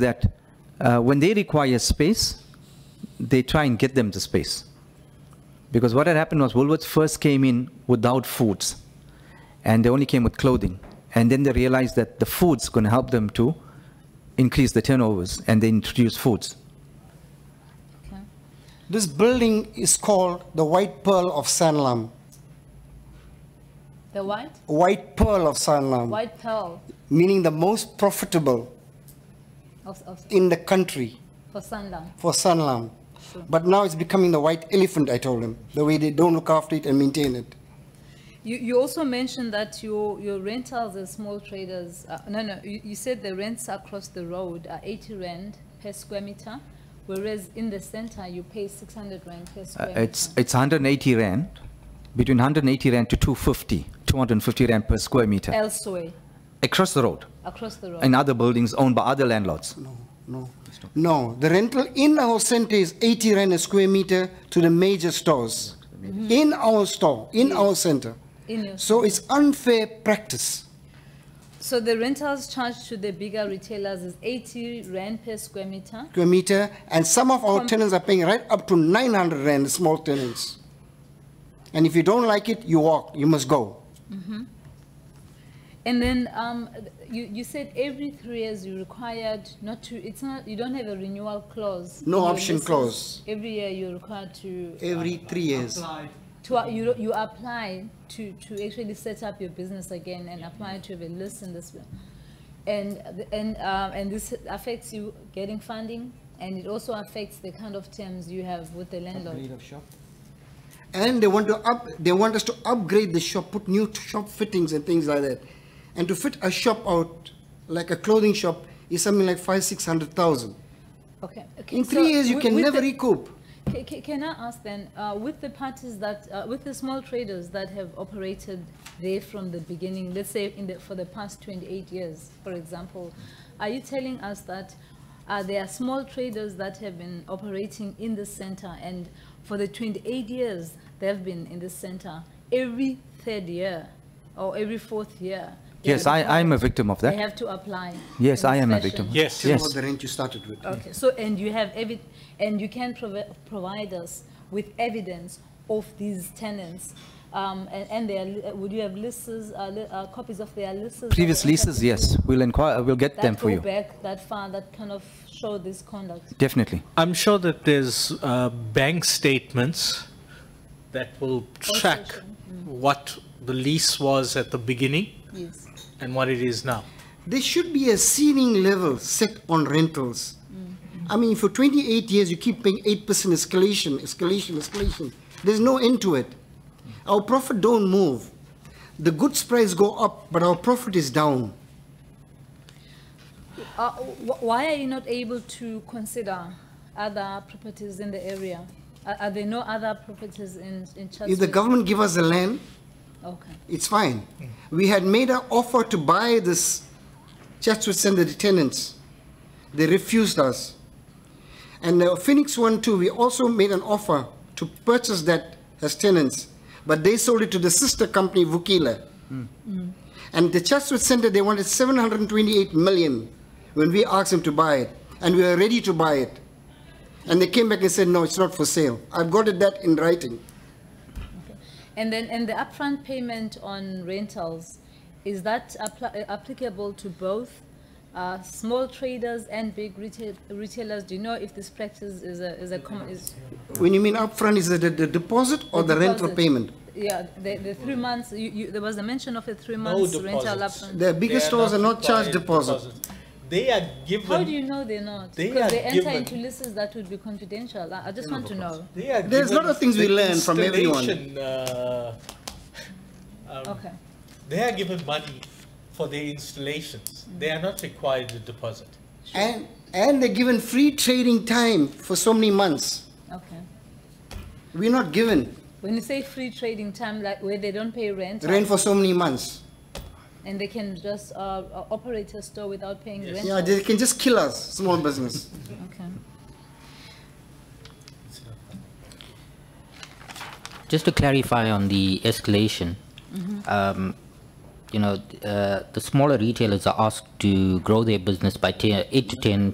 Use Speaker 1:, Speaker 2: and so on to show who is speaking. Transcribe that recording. Speaker 1: that uh, when they require space, they try and get them the space. Because what had happened was Woolworths first came in without foods, and they only came with clothing. And then they realized that the food's going to help them to increase the turnovers, and they introduced foods. Uh,
Speaker 2: This building is called the White Pearl of Sanlam.
Speaker 3: The what?
Speaker 2: White Pearl
Speaker 1: Um,
Speaker 2: of Sanlam,
Speaker 3: White pearl
Speaker 2: meaning the most profitable
Speaker 3: of, of,
Speaker 2: in the country
Speaker 3: for Sanlam.
Speaker 2: for Sanlam. But now it's becoming the white elephant, I told him, the way they don't look after it and maintain it.
Speaker 3: You, you also mentioned that your, your rentals and small traders, uh, no, no, you, you said the rents across the road are 80 rand per square meter, whereas in the center you pay 600 rand per
Speaker 1: Uh,
Speaker 3: square meter.
Speaker 1: It's, it's 180 rand, between 180 rand to 250, 250 rand per square meter,
Speaker 3: Elsewhere,
Speaker 1: across the road,
Speaker 3: across the road.
Speaker 1: in other buildings owned by other landlords.
Speaker 2: No, no, the rental in our center is 80 rand a square meter to the major stores. In our store, in our center.
Speaker 3: In your-
Speaker 2: So it's unfair practice.
Speaker 3: So the rentals charged to the bigger retailers is 80 rand per square meter.
Speaker 2: square meter, and some of our
Speaker 3: Com-
Speaker 2: tenants are paying right up to 900 rand, small tenants. And if you don't like it, you walk, you must go.
Speaker 3: And then um, you, you said every three years you're required not to, it's not, you don't have a renewal clause.
Speaker 2: No
Speaker 3: in your
Speaker 2: option
Speaker 3: leases.
Speaker 2: clause. Eh.
Speaker 3: Every year you're required to,
Speaker 2: Every three years.
Speaker 3: to you, you apply to, to actually set up your business again and apply to have a list in this. And, and, um, and this affects you getting funding and it also affects the kind of terms you have with the landlord.
Speaker 2: And they want to up, they want us to upgrade the shop, put new t- shop fittings and things like that. And to fit a shop out, like a clothing shop, is something like five, six hundred thousand.
Speaker 3: Okay. okay,
Speaker 2: In
Speaker 3: so
Speaker 2: three years, you
Speaker 3: wi-
Speaker 2: can
Speaker 3: with
Speaker 2: never
Speaker 3: the-
Speaker 2: recoup.
Speaker 3: Ca- ca- Can I ask then, uh, with the parties that, uh, with the small traders that have operated there from the beginning, let's say in the, for the past 28 years, for example, are you telling us that uh, there are small traders that have been operating in the center and for the 28 years they've been in the center, every third year or every fourth year? they
Speaker 1: Yes,
Speaker 3: are
Speaker 1: I, I'm a
Speaker 3: required-
Speaker 1: victim of
Speaker 3: They
Speaker 1: that.
Speaker 3: have to apply?
Speaker 1: Yes,
Speaker 3: in
Speaker 1: I
Speaker 3: this
Speaker 1: am a
Speaker 3: fashion?
Speaker 1: victim.
Speaker 4: Yes.
Speaker 2: Still
Speaker 1: Yes.
Speaker 2: not the rent you started with.
Speaker 3: Okay, so, and you have evi, and you can provi- provide us with evidence of these tenants, um, and, and their, li- would you have lists, uh, li- uh, copies of their lists? that
Speaker 1: Previous
Speaker 3: were entered
Speaker 1: leases,
Speaker 3: into-
Speaker 1: yes, we'll inquire, we'll get them
Speaker 3: That
Speaker 1: for
Speaker 3: go
Speaker 1: you,
Speaker 3: back that far, that kind of show this conduct.
Speaker 1: definitely.
Speaker 4: I'm sure that there's uh, bank statements that will track
Speaker 3: show.
Speaker 4: Mm. what the lease was at the beginning
Speaker 3: Yes.
Speaker 4: and what it is now.
Speaker 2: There should be a ceiling level set on rentals. I mean, for 28 years, you keep paying 8% escalation, escalation, escalation. There's no end to it. Our profit don't move. The goods price go up, but our profit is down.
Speaker 3: Uh, wh- why are you not able to consider other properties in the area? Are, are there no other properties in, in Chatsworth?
Speaker 2: If the government give us the land,
Speaker 3: Okay,
Speaker 2: it's fine. We had made an offer to buy this Chatsworth Center the tenants. They refused us. And the Phoenix one too, we also made an offer to purchase that as tenants, but they sold it to the sister company Vukile. And the Chatsworth Center, they wanted 728 million when we asked them to buy it, and we were ready to buy it. And they came back and said, no, it's not for sale. I've got it that in writing.
Speaker 3: and then, and the upfront payment on rentals, is that appli- uh, applicable to both uh, small traders and big retail- retailers? Do you know if this practice is a, is a common, is?
Speaker 2: When you mean upfront, is it the the deposit or the rental
Speaker 3: deposit?
Speaker 2: payment?
Speaker 3: Yeah, the, the three months, you, you, there was a mention of a three
Speaker 4: No
Speaker 3: months rental
Speaker 4: deposits.
Speaker 3: upfront.
Speaker 2: The biggest stores are not charged
Speaker 4: required
Speaker 2: deposit.
Speaker 4: They are
Speaker 3: How do
Speaker 4: given,
Speaker 3: you know they're not?
Speaker 4: They
Speaker 3: Because
Speaker 4: are
Speaker 3: they enter
Speaker 4: given-
Speaker 3: into lists that would be confidential. I, I just want to know.
Speaker 4: they are given.
Speaker 2: There's lot of things we
Speaker 4: the
Speaker 2: learn from everyone.
Speaker 4: installation, uh, um,
Speaker 3: Okay.
Speaker 4: They are given money for their installations. They are not required a deposit.
Speaker 2: And, and they're given free trading time for so many months.
Speaker 3: Okay.
Speaker 2: We're not given
Speaker 3: When you say free trading time, like where they don't pay rent
Speaker 2: rent for so many months.
Speaker 3: and they can just uh, uh, operate a store without paying rent?
Speaker 2: Yeah, they can just kill us, small business.
Speaker 3: Okay.
Speaker 5: Just to clarify on the escalation, um, you know, uh, the smaller retailers are asked to grow their business by 10, 8 to 10